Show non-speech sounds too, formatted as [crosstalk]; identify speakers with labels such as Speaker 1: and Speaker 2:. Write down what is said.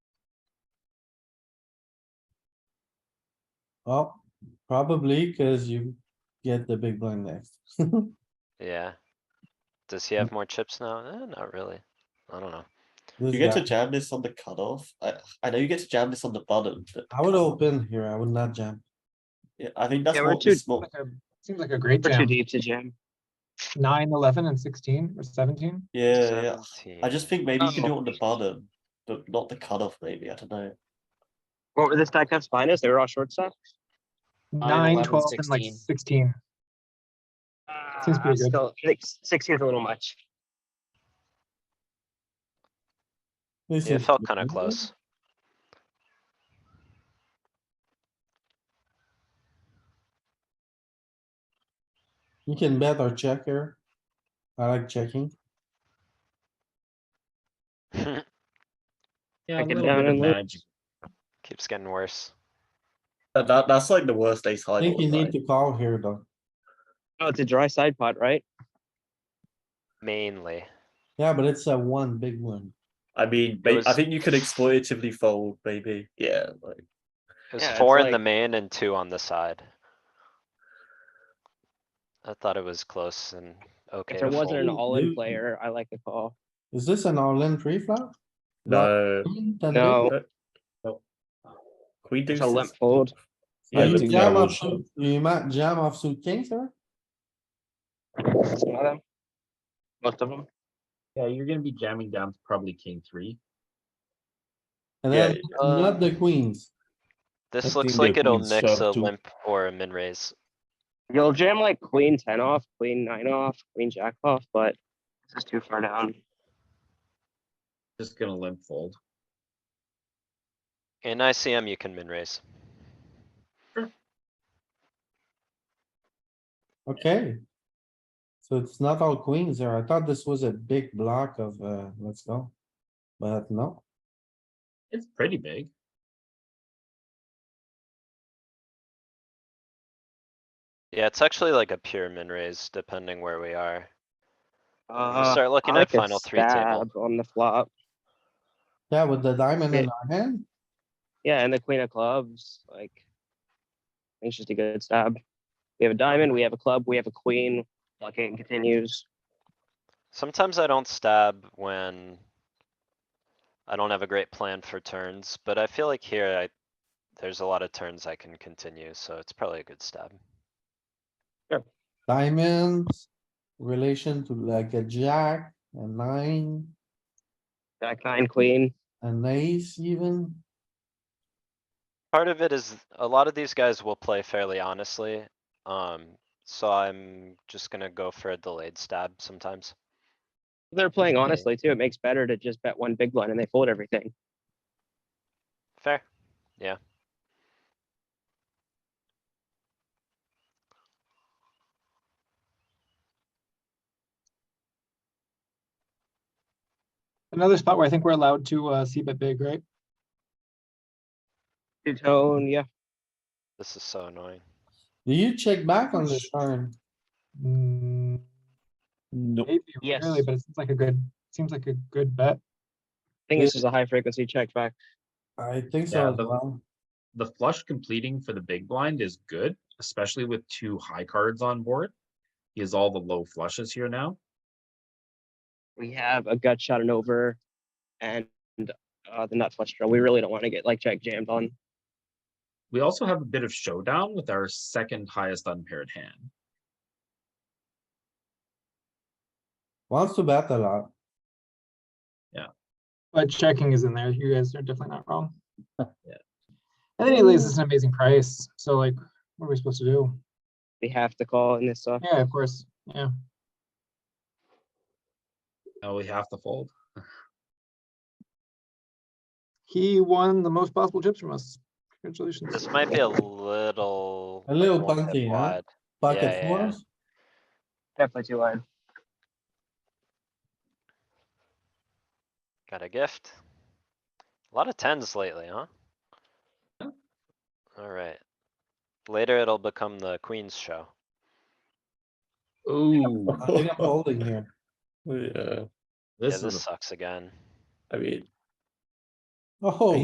Speaker 1: Oh, probably cuz you get the big blind next.
Speaker 2: Yeah. Does he have more chips now? Eh, not really. I don't know.
Speaker 1: This
Speaker 3: You get to
Speaker 1: guy.
Speaker 3: jam this on the cutoff. I, I know you get to jam this on the bottom, but
Speaker 1: I would open here, I would not jam.
Speaker 3: yeah, I think that's
Speaker 4: Yeah, we're
Speaker 3: what the
Speaker 4: too-
Speaker 3: small.
Speaker 5: Like a- Seems like a great
Speaker 4: We're too
Speaker 5: jam.
Speaker 4: deep to jam.
Speaker 5: Nine, eleven and sixteen or seventeen.
Speaker 3: Yeah, yeah. I
Speaker 2: 17.
Speaker 3: just think maybe you can do it on the
Speaker 4: Um,
Speaker 3: bottom, but not the cutoff. Maybe I don't know.
Speaker 4: What were the stack cups finest? They were all short stuff?
Speaker 5: Nine,
Speaker 4: 11,
Speaker 5: twelve and like
Speaker 4: 16.
Speaker 5: sixteen. Seems
Speaker 4: Uh,
Speaker 5: pretty good.
Speaker 4: still, I think sixteen's a little much.
Speaker 1: This
Speaker 2: Yeah, It
Speaker 1: is
Speaker 2: felt kinda
Speaker 1: good.
Speaker 2: close.
Speaker 1: You can bet or check here. I like checking.
Speaker 4: I get down and look.
Speaker 2: [laughs] Keeps getting worse.
Speaker 3: That, that that's like the worst ace high.
Speaker 1: I think
Speaker 3: board,
Speaker 1: you need
Speaker 3: right?
Speaker 1: to call here though.
Speaker 4: Oh, it's a dry side pot, right?
Speaker 2: Mainly.
Speaker 1: Yeah, but it's a one big one.
Speaker 3: I mean, may- I
Speaker 2: was-
Speaker 3: think you could exploitatively fold. Maybe yeah. Like
Speaker 2: It was
Speaker 4: Yeah, it's
Speaker 2: four in the
Speaker 4: like-
Speaker 2: main and two on the side. I thought it was close and okay
Speaker 4: If there
Speaker 2: to
Speaker 4: wasn't
Speaker 2: fold.
Speaker 4: an
Speaker 1: fold.
Speaker 4: all-in
Speaker 1: Ooh.
Speaker 4: player, I like the call.
Speaker 1: Is this an all-in pre flop?
Speaker 3: no,
Speaker 4: No.
Speaker 3: queen deuce.
Speaker 4: It's a limp fold.
Speaker 1: Are
Speaker 3: Yeah,
Speaker 1: you
Speaker 3: but
Speaker 1: jam
Speaker 3: no.
Speaker 1: off, suit- you might jam off suit kings here?
Speaker 4: Some of them. Most of them.
Speaker 6: Yeah, you're gonna be jamming down to probably king three.
Speaker 1: And
Speaker 3: Yeah,
Speaker 1: then
Speaker 2: uh,
Speaker 1: not the queens.
Speaker 2: This
Speaker 6: Let's
Speaker 2: looks
Speaker 6: see the
Speaker 2: like it'll
Speaker 6: queen
Speaker 2: mix
Speaker 6: shove
Speaker 2: a
Speaker 6: to-
Speaker 2: limp or a min raise.
Speaker 4: You'll jam like queen ten off, queen nine off, queen jack off, but this is too far down.
Speaker 6: Just gonna limp fold.
Speaker 2: In ICM, you can min raise.
Speaker 1: Okay. So it's not all queens there. I thought this was a big block of, uh, let's go. But no,
Speaker 6: It's pretty big.
Speaker 2: Yeah, it's actually like a pure min raise depending where we are. You
Speaker 4: Uh,
Speaker 2: start
Speaker 4: I
Speaker 2: looking at
Speaker 4: like a
Speaker 2: final three table.
Speaker 4: stab on the flop.
Speaker 1: yeah, with the diamond in
Speaker 4: Yeah.
Speaker 1: our hand,
Speaker 4: Yeah, and the queen of clubs, like. I think It's just a good stab. We have a diamond, we have a club, we have a queen, blocking continues.
Speaker 2: Sometimes I don't stab when I don't have a great plan for turns, but I feel like here I, there's a lot of turns I can continue, so it's probably a good stab.
Speaker 1: diamonds. Relation to like a jack, a nine,
Speaker 4: Jack nine, queen.
Speaker 1: an ace even.
Speaker 2: Part of it is a lot of these guys will play fairly honestly, um, so I'm just gonna go for a delayed stab sometimes.
Speaker 4: They're playing
Speaker 6: Okay.
Speaker 4: honestly too. It makes better to just bet one big blind and they fold everything.
Speaker 2: Fair.
Speaker 5: Another spot where I think we're allowed to uh see bet big, right?
Speaker 4: Two tone, yeah.
Speaker 2: This is so annoying.
Speaker 1: Do you check back on this turn?
Speaker 5: Mm,
Speaker 6: No.
Speaker 5: Maybe
Speaker 4: Yes.
Speaker 5: really, but it seems like a good, seems like a good bet.
Speaker 4: I think this is a high frequency check back.
Speaker 1: I think
Speaker 6: Yeah,
Speaker 1: so as
Speaker 6: but-
Speaker 1: well.
Speaker 6: The flush completing for the big blind is good, especially with two high cards on board. He has all the low flushes here now.
Speaker 4: We have a gut shot and over and uh the nut flush draw. We really don't want to get like jack jammed on.
Speaker 6: We also have a bit of showdown with our second highest unpaired hand.
Speaker 1: Wants to bet a lot.
Speaker 5: But checking is in there. You guys are definitely not [laughs] wrong. And then he lays us an amazing price. So like, what are we supposed to do?
Speaker 4: We have to call in this uh, stuff.
Speaker 5: Yeah, of course. Yeah.
Speaker 6: Now we have to fold.
Speaker 5: He won the most possible chips from us. Congratulations.
Speaker 2: This might be a little.
Speaker 1: A
Speaker 2: like,
Speaker 1: little
Speaker 2: one pip
Speaker 1: bunty, huh?
Speaker 2: wide. Yeah,
Speaker 1: Pocket
Speaker 2: yeah, yeah.
Speaker 1: fours,
Speaker 4: Definitely too wide.
Speaker 2: Got a gift. A lot of tens lately, huh?
Speaker 6: Yeah.
Speaker 2: Alright. Later it'll become the queen's show.
Speaker 6: Ooh,
Speaker 1: I think I'm holding
Speaker 2: [laughs]
Speaker 1: here.
Speaker 3: yeah,
Speaker 2: Yeah,
Speaker 6: this is a
Speaker 2: this sucks again.
Speaker 3: I mean,
Speaker 1: Oh.